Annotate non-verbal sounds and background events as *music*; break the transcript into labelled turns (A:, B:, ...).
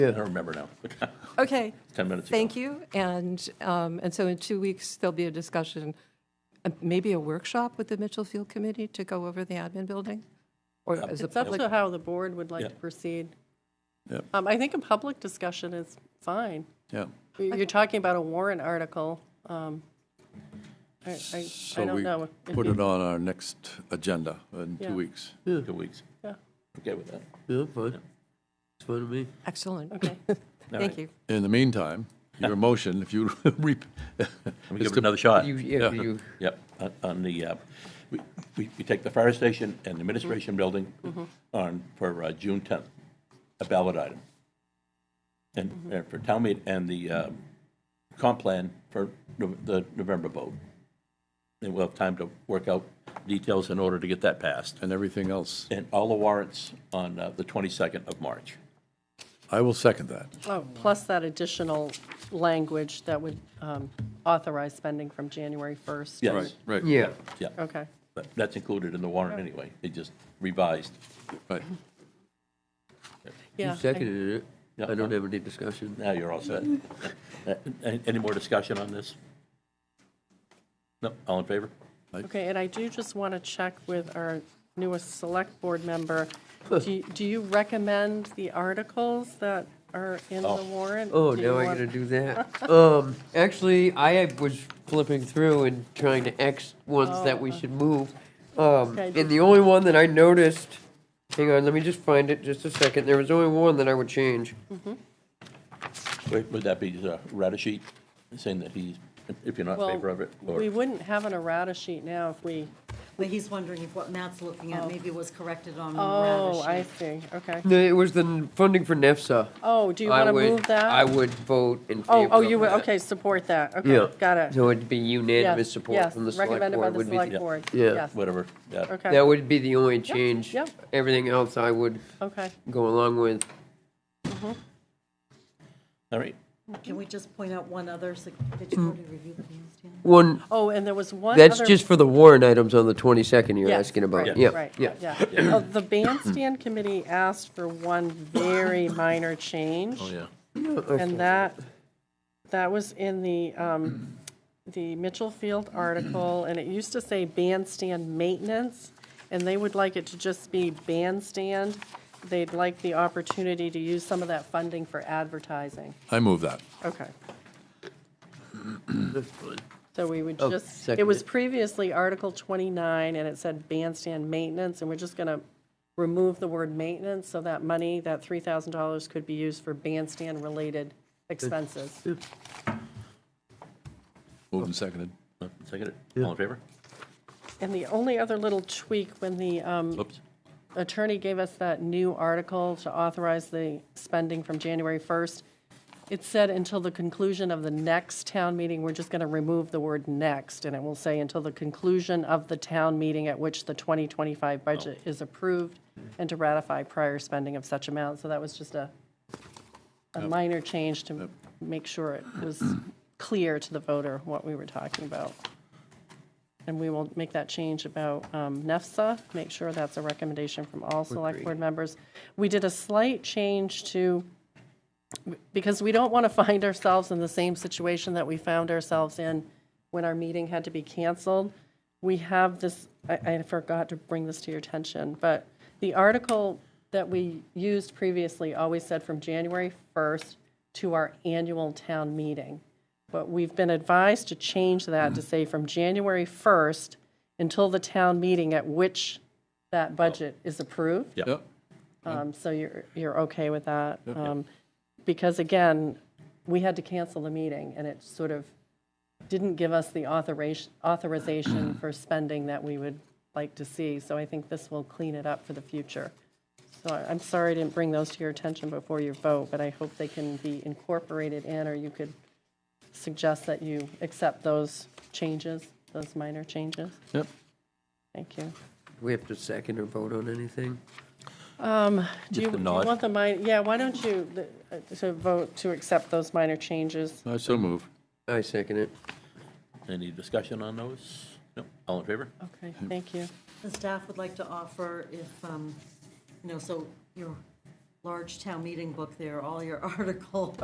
A: I don't remember now. *laughs*
B: Okay.
A: 10 minutes ago.
B: Thank you. And, um, and so in two weeks, there'll be a discussion, uh, maybe a workshop with the Mitchell Field Committee to go over the admin building? Or as a
C: It's up
B: public,
C: to how the board would like to
A: Yeah.
C: proceed.
A: Yep.
C: Um, I think a public discussion is fine.
D: Yeah.
C: You're you're talking about a warrant article. um, I, I- I
D: So
C: don't
D: we
C: know. if
D: put
C: you-
D: it on our next agenda in
C: Yeah.
D: two weeks.
A: Two weeks.
C: Yeah.
A: Okay with that.
E: Yeah, fine. It's fine to me.
B: excellent.
C: Okay.
B: Thank you.
D: In the meantime, your motion, if you, *laughs* re-
A: Let me give it another shot.
F: You, yeah, you,
A: Yep, on- on the, uh, we, we we take the fire station and administration building on, for uh, June 10th, a ballot item. And and for town meet and the um, comp plan for Nov- the November vote. And we'll have time to work out details in order to get that passed.
D: and everything else.
A: And all the warrants on uh, the 22nd of March.
D: I will second that.
C: Oh, Plus that additional language that would um, authorize spending from January 1st.
A: Yes,
D: Right,
F: yeah.
A: yeah,
C: Okay.
A: but that's included in the warrant anyway. They just revised.
D: right.
C: Yeah,
F: You
C: I-
F: seconded
A: Yeah.
F: it. I don't have any discussion.
A: Now you're all set. Uh, a- Any more discussion on this? No, all in favor?
C: Okay, and I do just want to check with our newest select board member. Do you- do you recommend the articles that are in the warrant?
F: Oh,
C: Do you
F: now I
C: want-
F: gotta do that.
C: *laughs*
F: Um, actually, I was flipping through and trying to X ones that we should move. Um,
C: Oh. Okay.
F: and the only one that I noticed, hang on, let me just find it, just a second. There was only one that I would change.
C: Mm-hmm.
A: Would would that be uh, Radisheet saying that he's, if you're not in
C: Well,
A: favor of it? or-
C: We wouldn't have an errata sheet now if we,
G: But he's wondering if what Matt's looking at maybe was corrected on
C: oh,
G: Radisson.
C: I see, okay.
F: No, It was the n- E funding for NEFSA.
C: Oh, do you
F: I
C: want to
F: would-
C: move that?
F: I would vote in favor
C: Oh,
F: of
C: oh, you would,
F: that.
C: okay, support that,
F: Yeah.
C: okay, got it.
F: So it'd be unanimous
C: Yes,
F: support
C: yes,
F: from the select board.
C: recommended by the
F: would be
C: select board.
F: Yeah.
C: yes,
A: Whatever, yeah.
C: Okay.
F: That would be the only change.
C: yep.
F: Everything else I would
C: Okay,
F: go along with.
A: All right,
G: Can we just point out one other, sig- did you already review the bandstand?
F: One,
C: oh, and there was one other.
F: that's just for the warrant items on the 22nd you're
C: Yes,
F: asking
C: right,
F: about. Yeah,
C: right,
F: yeah.
C: Oh, The bandstand committee asked for one very minor change.
A: oh, yeah.
C: And that, that was in the, um, the Mitchell Field article, and it used to say bandstand maintenance, and they would like it to just be bandstand. They'd like the opportunity to use some of that funding for advertising.
D: I move that.
C: Okay. So we would
F: Oh,
C: just, it
F: second
C: was
F: it.
C: previously Article 29, and it said bandstand maintenance, and we're just going to remove the word maintenance, so that money, that $3,000 could be used for bandstand-related expenses.
D: Moved and seconded.
A: Uh, Seconded, all in favor?
C: And the only other little tweak, when the um,
A: Oops,
C: attorney gave us that new article to authorize the spending from January 1st. It said until the conclusion of the next town meeting, we're just going to remove the word next, and it will say until the conclusion of the town meeting at which the 2025 budget is approved and to ratify prior spending of such amount. So that was just a, a minor change to make sure it was clear to the voter what we were talking about. And we will make that change about um, NEFSA, make sure that's a recommendation from all select board members. We did a slight change to, because we don't want to find ourselves in the same situation that we found ourselves in when our meeting had to be canceled. We have this, I, I forgot to bring this to your attention, but the article that we used previously always said from January 1st to our annual town meeting. But we've been advised to change that to say from January 1st until the town meeting at which that budget is approved.
A: yeah.
D: Yep.
C: Um, So you're, you're okay with that? Um, Because again, we had to cancel the meeting, and it sort of didn't give us the authorization, authorization for spending that we would like to see. So I think this will clean it up for the future. So I- I'm sorry I didn't bring those to your attention before your vote, but I hope they can be incorporated in, or you could suggest that you accept those changes, those minor changes.
D: Yep.
C: Thank you.
F: We have to second or vote on anything?
C: Do you
A: a
C: do you
A: nod.
C: want the minor, yeah, why don't you, the- uh, to vote to accept those minor changes?
D: I so move.
F: I second it.
A: Any discussion on those? No, all in favor?
C: Okay, thank you.
G: The staff would like to offer if, um, you know, so your large town meeting book there, all your *laughs* articles.